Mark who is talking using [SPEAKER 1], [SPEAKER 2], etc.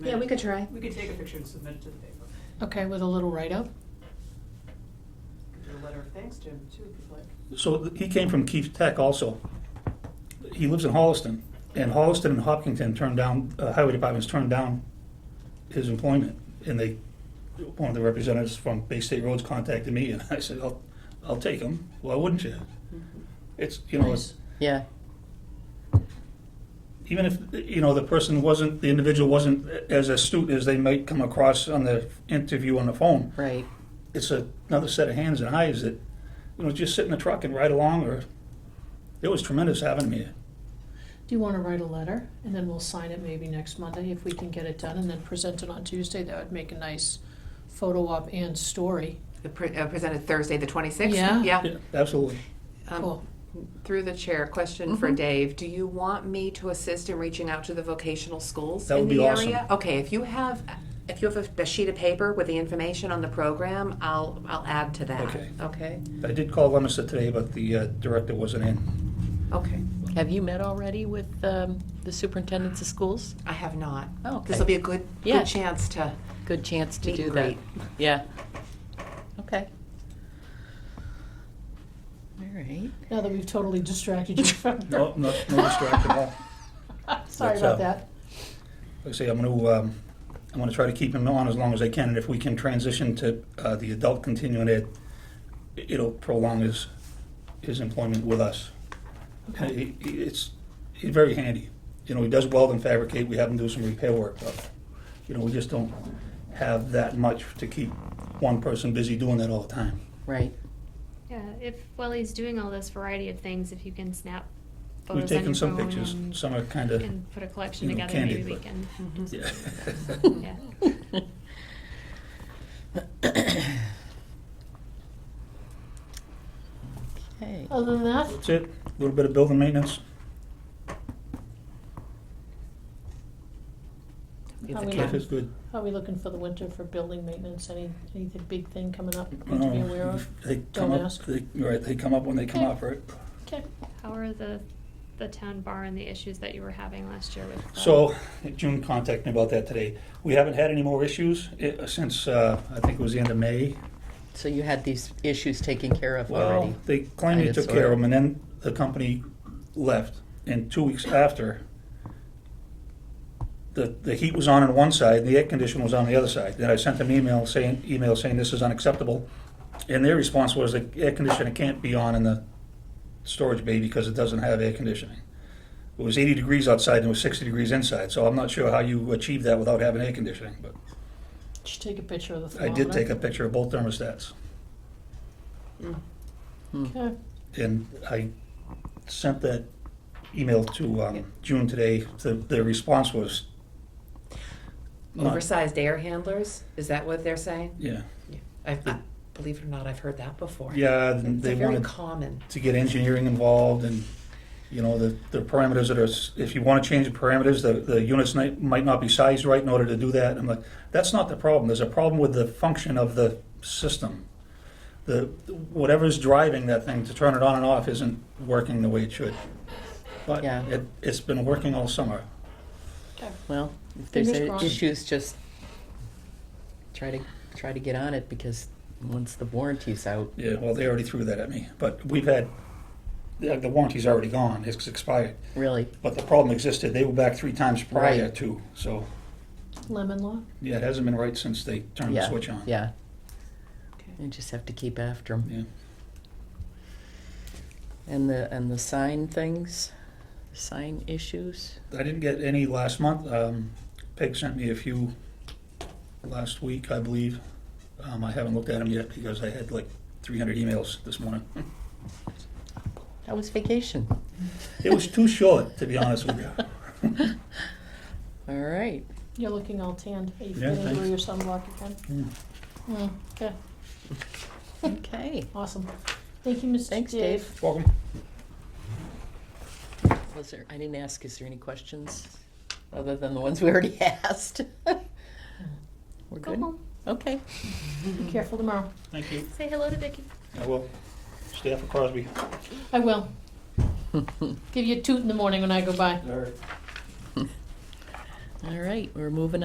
[SPEAKER 1] Yeah, we could try.
[SPEAKER 2] We could take a picture and submit it to the paper.
[SPEAKER 3] Okay, with a little write-up?
[SPEAKER 2] Could do a letter of thanks to him too, if you'd like.
[SPEAKER 4] So he came from Keith Tech also. He lives in Holliston, and Holliston and Hopkinton turned down, uh, highway departments turned down his employment, and they, one of the representatives from Bay State Roads contacted me, and I said, I'll, I'll take him. Why wouldn't you? It's, you know, it's,
[SPEAKER 5] Yeah,
[SPEAKER 4] even if, you know, the person wasn't, the individual wasn't as astute as they might come across on the interview on the phone,
[SPEAKER 5] right.
[SPEAKER 4] it's a- another set of hands and eyes that, you know, just sit in the truck and ride along, or, it was tremendous having him here.
[SPEAKER 3] Do you want to write a letter, and then we'll sign it maybe next Monday if we can get it done, and then present it on Tuesday? That would make a nice photo op and story.
[SPEAKER 6] The pre- uh, Presented Thursday, the 26th?
[SPEAKER 3] Yeah.
[SPEAKER 4] Yeah, absolutely.
[SPEAKER 6] Um,
[SPEAKER 3] Cool.
[SPEAKER 6] Through the chair, question for Dave. Do you want me to assist in reaching out to the vocational schools
[SPEAKER 4] That
[SPEAKER 6] in
[SPEAKER 4] would be
[SPEAKER 6] the
[SPEAKER 4] awesome.
[SPEAKER 6] area? Okay, if you have if you have a, a sheet of paper with the information on the program, I'll I'll add to that.
[SPEAKER 4] Okay.
[SPEAKER 6] Okay.
[SPEAKER 4] I did call Lemonster today, but the uh, director wasn't in.
[SPEAKER 6] Okay.
[SPEAKER 5] Have you met already with um, the superintendents of schools?
[SPEAKER 6] I have not.
[SPEAKER 5] Oh, okay.
[SPEAKER 6] This will be a good
[SPEAKER 5] Yeah.
[SPEAKER 6] good chance to
[SPEAKER 5] Good chance to
[SPEAKER 6] Meet
[SPEAKER 5] do
[SPEAKER 6] and
[SPEAKER 5] that.
[SPEAKER 6] greet.
[SPEAKER 5] Yeah. Okay. All right.
[SPEAKER 3] Now that we've totally distracted you from.
[SPEAKER 4] No, no, no distraction at all.
[SPEAKER 3] Sorry
[SPEAKER 4] That's,
[SPEAKER 3] about
[SPEAKER 4] uh,
[SPEAKER 3] that.
[SPEAKER 4] Like I say, I'm gonna, um, I'm gonna try to keep him on as long as I can, and if we can transition to, uh, the adult continuing ed, it'll prolong his, his employment with us. And
[SPEAKER 3] Okay.
[SPEAKER 4] he, he- it's, he's very handy. You know, he does weld and fabricate, we have him do some repair work, but, you know, we just don't have that much to keep one person busy doing that all the time.
[SPEAKER 5] Right.
[SPEAKER 7] Yeah, if while he's doing all this variety of things, if you can snap
[SPEAKER 4] We've
[SPEAKER 7] photos on your
[SPEAKER 4] taken some
[SPEAKER 7] phone
[SPEAKER 4] pictures,
[SPEAKER 7] and,
[SPEAKER 4] some are kinda,
[SPEAKER 7] and put a collection
[SPEAKER 4] you know,
[SPEAKER 7] together, maybe
[SPEAKER 4] candid,
[SPEAKER 7] we
[SPEAKER 4] but- yeah.
[SPEAKER 7] can. Yeah.
[SPEAKER 5] Okay.
[SPEAKER 3] Other than that,
[SPEAKER 4] That's it, a little bit of building maintenance.
[SPEAKER 6] be
[SPEAKER 3] How
[SPEAKER 6] the
[SPEAKER 3] we
[SPEAKER 6] cat.
[SPEAKER 4] Jeff is good.
[SPEAKER 3] how are we looking for the winter for building maintenance? Any, anything big thing coming up we need to be aware
[SPEAKER 4] Um,
[SPEAKER 3] of?
[SPEAKER 4] They come
[SPEAKER 3] Don't
[SPEAKER 4] up,
[SPEAKER 3] ask.
[SPEAKER 4] they, you're right, they come up when they come
[SPEAKER 3] Okay.
[SPEAKER 4] up, right?
[SPEAKER 3] Okay,
[SPEAKER 7] How are the the town bar and the issues that you were having last year with? the-
[SPEAKER 4] So, June contacted me about that today. We haven't had any more issues eh, since, uh, I think it was the end of May.
[SPEAKER 5] So you had these issues taken care of
[SPEAKER 4] Well,
[SPEAKER 5] already?
[SPEAKER 4] they claimed they
[SPEAKER 5] Kinda,
[SPEAKER 4] took care of
[SPEAKER 5] sorta.
[SPEAKER 4] them, and then the company left, and two weeks after, the, the heat was on on one side, and the air conditioner was on the other side. Then I sent them email saying, email saying this is unacceptable, and their response was the air conditioner can't be on in the storage bay because it doesn't have air conditioning. It was eighty degrees outside and it was sixty degrees inside, so I'm not sure how you achieve that without having air conditioning, but
[SPEAKER 3] did you take a picture of the
[SPEAKER 4] I
[SPEAKER 3] thermometer?
[SPEAKER 4] did take a picture of both thermostats.
[SPEAKER 5] Hmm.
[SPEAKER 3] Okay,
[SPEAKER 4] And I sent that email to um, June today. The, the response was, not-
[SPEAKER 6] Mm-hmm. Oversized air handlers? Is that what they're saying?
[SPEAKER 4] yeah,
[SPEAKER 6] I, I believe it or not, I've heard that before.
[SPEAKER 4] yeah,
[SPEAKER 6] It's
[SPEAKER 4] they
[SPEAKER 6] a very
[SPEAKER 4] wanted
[SPEAKER 6] common.
[SPEAKER 4] to get engineering involved and, you know, the, the parameters that are, s- if you want to change the parameters, the, the units might, might not be sized right in order to do that. I'm like, that's not the problem. There's a problem with the function of the system. The, whatever's driving that thing to turn it on and off isn't working the way it should. But
[SPEAKER 5] Yeah.
[SPEAKER 4] it, it's been working all summer.
[SPEAKER 5] Well, if there's
[SPEAKER 3] Fingers
[SPEAKER 5] a-
[SPEAKER 3] crossed.
[SPEAKER 5] issues, just try to, try to get on it because once the warranty's out,
[SPEAKER 4] Yeah, well, they already threw that at me, but we've had, the the warranty's already gone, it's expired.
[SPEAKER 5] really,
[SPEAKER 4] But the problem existed, they were back three times prior
[SPEAKER 5] Right.
[SPEAKER 4] to, so,
[SPEAKER 3] lemon law?
[SPEAKER 4] yeah, it hasn't been right since they turned the
[SPEAKER 5] yeah,
[SPEAKER 4] switch on.
[SPEAKER 5] yeah.
[SPEAKER 6] Okay.
[SPEAKER 5] You just have to keep after them.
[SPEAKER 4] Yeah.
[SPEAKER 5] And the, and the sign things, sign issues?
[SPEAKER 4] I didn't get any last month, um, Peg sent me a few last week, I believe. Um, I haven't looked at them yet because I had like three hundred emails this morning.
[SPEAKER 5] That was vacation.
[SPEAKER 4] It was too short, to be honest with you.
[SPEAKER 5] All right.
[SPEAKER 3] You're looking all tanned. Are you
[SPEAKER 4] Yeah,
[SPEAKER 3] feeling through
[SPEAKER 4] thanks.
[SPEAKER 3] your sunblock again?
[SPEAKER 5] Hmm.
[SPEAKER 4] Mm.
[SPEAKER 3] Mm, Okay,
[SPEAKER 5] Okay.
[SPEAKER 3] awesome. Thank you, Mr.
[SPEAKER 5] Thanks,
[SPEAKER 3] Dave.
[SPEAKER 5] Dave.
[SPEAKER 4] Welcome.
[SPEAKER 5] Was there, I didn't ask, is there any questions other than the ones we already asked? We're
[SPEAKER 7] Go
[SPEAKER 5] good?
[SPEAKER 7] home.
[SPEAKER 5] Okay.
[SPEAKER 3] Be careful tomorrow.
[SPEAKER 4] Thank you.
[SPEAKER 7] Say hello to Vicky.
[SPEAKER 4] I will. Staff of Crosby.
[SPEAKER 3] I will. Give you a toot in the morning when I go by.
[SPEAKER 4] All right.
[SPEAKER 5] All right, we're moving